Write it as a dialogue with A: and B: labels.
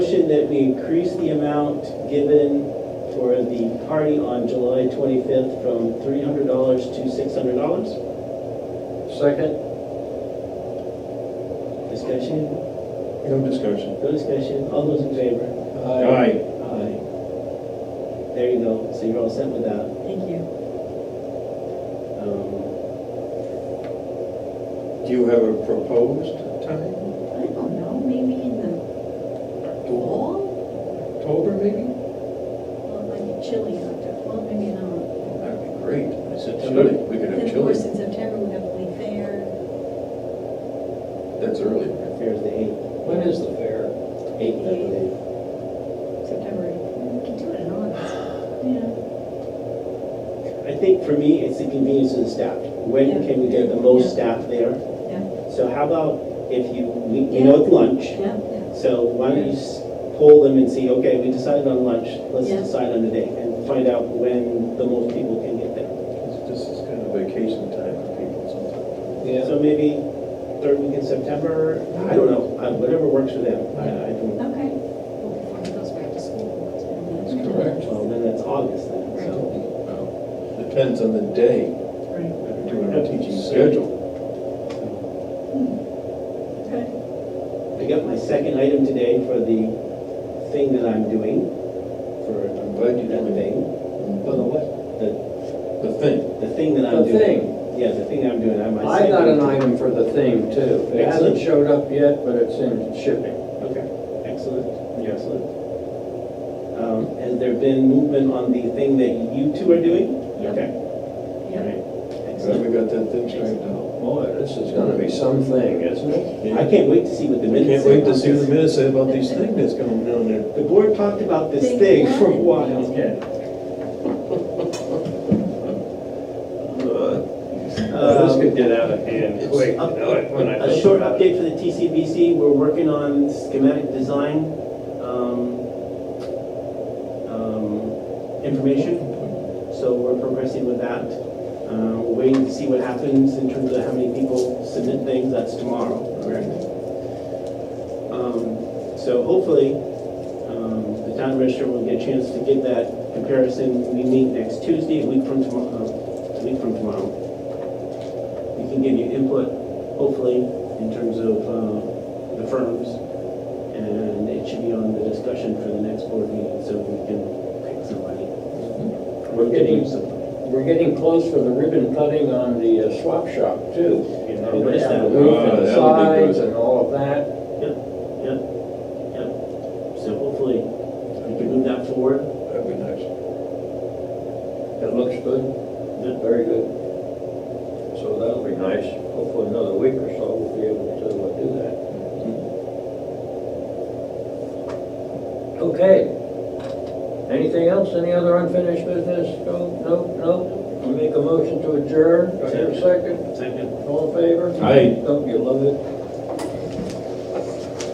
A: suggestion that we increase the amount given for the party on July 25th from $300 to $600?
B: Second?
A: Discussion?
C: No discussion.
A: No discussion? All those in favor?
C: Aye.
A: Aye. There you go. So you're all set with that.
D: Thank you.
A: Um,
C: Do you have a proposed time?
D: I don't know, maybe in the fall?
C: October, maybe?
D: Well, it might be chilly after, well, maybe not.
C: That'd be great.
B: September?
C: We could
D: Then,
C: have
D: of course,
C: chili.
D: in September, we have Lee Fair.
C: That's early.
A: our fair is the 8th,
B: When is the fair?
A: 8th, I believe.
D: September. We can do it in August.
A: I think for me, it's the convenience of the staff. When
D: Yeah.
A: can we get the most
D: Yeah.
A: staff there?
D: Yeah.
A: So how about if you, we we know it's lunch.
D: Yeah. Yeah.
A: So why don't you s- poll them and see, okay, we decided on lunch, let's
D: Yeah.
A: decide on the date and find out when the most people can get there.
C: This is kind of vacation time for people sometimes.
A: So maybe third week in September, I don't know, uh, whatever works for them. I I don't,
D: Okay. Well, before he goes back to school. it's gonna be-
B: That's correct.
A: well, then that's August then, so.
C: Well, Depends on the day,
D: Right.
C: doing a teaching schedule.
D: Okay.
A: I got my second item today for the thing that I'm doing, for
C: I'm glad you
A: that
C: did it.
A: thing,
B: For the what?
A: the,
C: The thing.
A: the thing that I'm
B: The
A: doing.
B: thing.
A: Yeah, the thing I'm doing, I'm. my
B: I got
A: second-
B: an item for the thing too. It
A: Excellent.
B: hasn't showed up yet, but it's in shipping.
A: Okay, excellent, excellent. Um, Has there been movement on the thing that you two are doing?
D: Yep.
A: Okay, all
D: Yeah.
A: right,
C: Glad
A: excellent.
C: we got that thing straightened out.
B: Boy, this is gonna be something, isn't it?
A: I can't wait to see what the
C: We
A: minutes
C: can't
A: say
C: wait to
A: about
C: see what the
A: this.
C: minutes say about these things that's going on there.
A: The board talked about this
D: They
A: thing for a
D: wanted
A: while. um,
C: Uh, This could get out of
B: hand
C: quick,
A: you know
C: it, when
A: A short update for the TCBC, we're working on schematic design um, um, information, so we're progressing with that. Uh, We're waiting to see what happens in terms of how many people submit things, that's tomorrow. Um, So hopefully, um, the town register will get a chance to give that comparison. We meet next Tuesday, a week from tomorrow, uh, a week from tomorrow. We can give you input, hopefully, in terms of uh, the firms, and it should be on the discussion for the next board meeting, so we can pick somebody.
B: Mm-hmm. We're getting, we're getting close for the ribbon cutting on the uh, swap shop too. You know,
A: What is that?
B: The roof
C: Ah,
B: and the
C: that'll be good.
B: sides and all of that.
A: So hopefully, we can move that forward.
C: That'd be nice.
B: It looks good,
A: The-
B: very good. So that'll be nice. Hopefully another week or so we'll be able to uh, do that. Okay. Anything else? Any other unfinished business? No, no, no? We Make a motion to adjourn. Do I hear a second?
A: Second.
B: All in favor?
C: Aye.
B: Don't you love it?